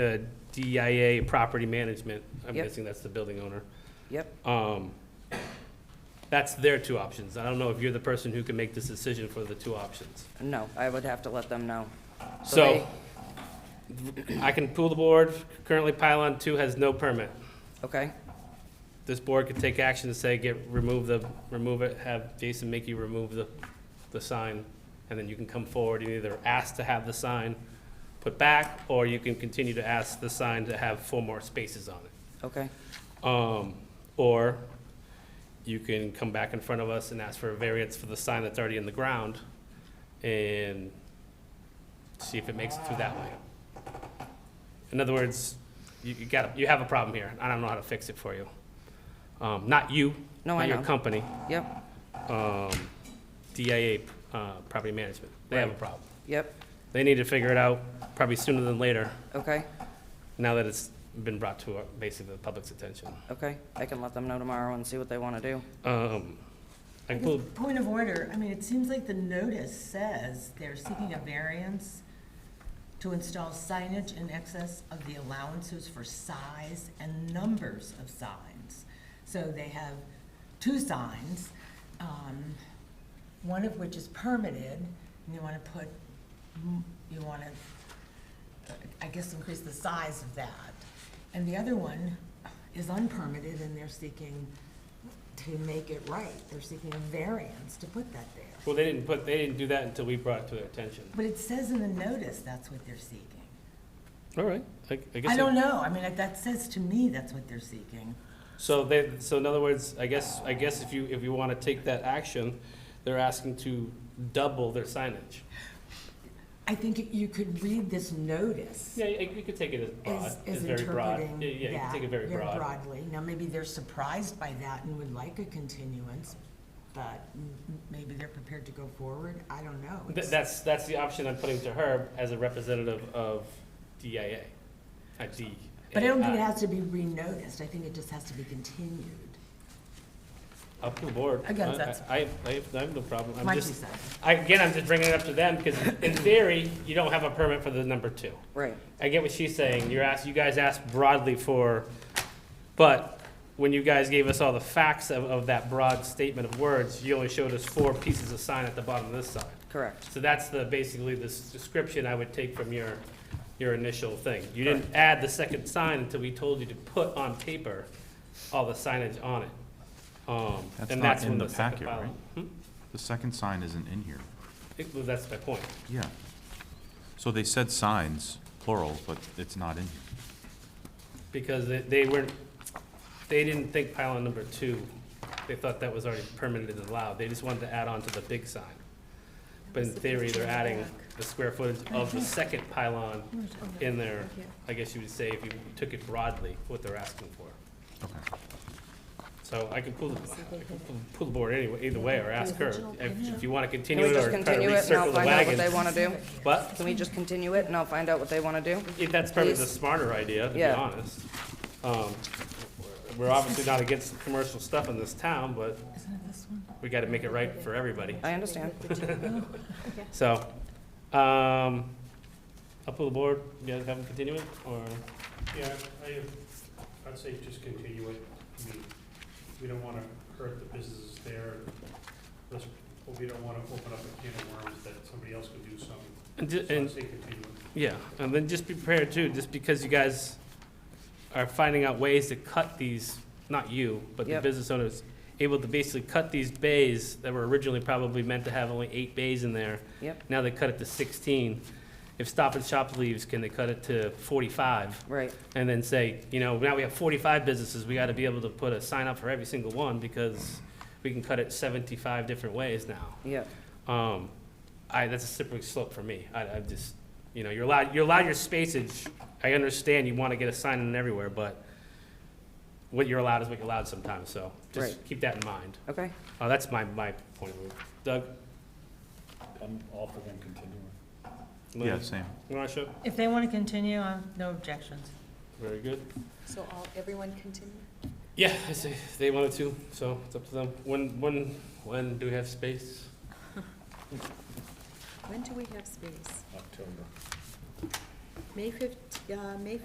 the DIA Property Management, I'm Yep. guessing that's the building owner. Yep, Um, That's their two options. I don't know if you're the person who can make this decision for the two options. no, I would have to let them know. So I can pull the board. Currently pylon two has no permit. they- Okay, This board could take action to say, get, remove the, remove it, have Jason make you remove the, the sign. And then you can come forward and either ask to have the sign put back, or you can continue to ask the sign to have four more spaces on it. okay, Um, or you can come back in front of us and ask for a variance for the sign that's already in the ground and see if it makes it through that way. In other words, you, you got, you have a problem here. I don't know how to fix it for you. Um, not you. No, I Not know. your company, yep, um, DIA, uh, Property Management. They have a Right. problem. yep, They need to figure it out probably sooner than later, okay, now that it's been brought to, uh, basically, the public's attention. okay. I can let them know tomorrow and see what they want to do. Um, I can pull, Point of order, I mean, it seems like the notice says they're seeking a variance to install signage in excess of the allowances for size and numbers of signs. So they have two signs, um, one of which is permitted, and you wanna put, m- you wanna, uh, I guess, increase the size of that. And the other one is unpermitted, and they're seeking to make it right. They're seeking a variance to put that there. well, they didn't put, they didn't do that until we brought it to their attention. But it says in the notice that's what they're seeking. All right, I, I guess. I don't it- know, I mean, that says to me that's what they're seeking. So they, so in other words, I guess, I guess if you, if you want to take that action, they're asking to double their signage. I think you could read this notice Yeah, you you could take it as broad, as, as as very broad. interpreting Yeah, yeah, you could that take it very broad. broadly. Now, maybe they're surprised by that and would like a continuance, but m- m- maybe they're prepared to go forward, I don't know. Th- That's, that's the option I'm putting to her as a representative of DIA, uh, D. But I don't think it has to be re-noticed, I think it just has to be continued. Up to the board. Again, I- I- that's- I, I have, I have no problem. I'm Might be just- so. I, again, I'm just bringing it up to them because in theory, you don't have a permit for the number two. Right, I get what she's saying. You're asked, you guys asked broadly for, but when you guys gave us all the facts of, of that broad statement of words, you only showed us four pieces of sign at the bottom of this sign. correct, So that's the, basically the s- description I would take from your, your initial thing. You didn't add the second sign until we told you to put on paper all the signage on it. Um, That's and not that's in when the second packet, file- right? Hmm? The second sign isn't in here. It- well, That's my point. Yeah. So they said signs, plural, but it's not in here. Because they, they weren't, they didn't think pylon number two, they thought that was already permitted and allowed, they just wanted to add on to the big sign. But in theory, they're adding the square footage of the second pylon in there, I guess you would say, if you took it broadly, what they're asking for. Okay. So I can pull, the I can pull- pull the board anyway, either way, or ask her, if, if you wanna continue Can it we or just try to continue it and recircle I'll the find out what they wagon. want to do? But, Can we just continue it and I'll find out what they want to do? if that's probably the Please. smarter idea, to be Yeah. honest. Um, We're obviously not against commercial stuff in this town, but Isn't it this one? we gotta make it right for everybody. I understand. So, um, up to the board, you guys have them continue it, or? Yeah, I, I'd say just continue it. I mean, we don't wanna hurt the businesses there. Let's, but we don't wanna open up a can of worms that somebody else could do something. And ju- So I'd And, say continue it. yeah, and then just be prepared too, just because you guys are finding out ways to cut these, not you, but the Yep. business owners, able to basically cut these bays that were originally probably meant to have only eight bays in there. Yep, Now they cut it to sixteen. If Stop and Shop leaves, can they cut it to forty-five? right, and then say, you know, now we have 45 businesses, we got to be able to put a sign up for every single one because we can cut it 75 different ways now. yep, Um, I, that's a slippery slope for me. I, I just, you know, you're allowed, you're allowed your spacage. I understand you want to get a sign in everywhere, but what you're allowed is what you're allowed sometimes, so just Right. keep that in mind. okay, Uh, that's my, my point of view. Doug? I'm all for them continuing. Lynn, Yeah, same. Marsha? If they wanna continue, I have no objections. Very good. So all, everyone continue? Yeah, I say they wanted to, so it's up to them. When, when, when do we have space? When do we have space? October. May 15, uh, May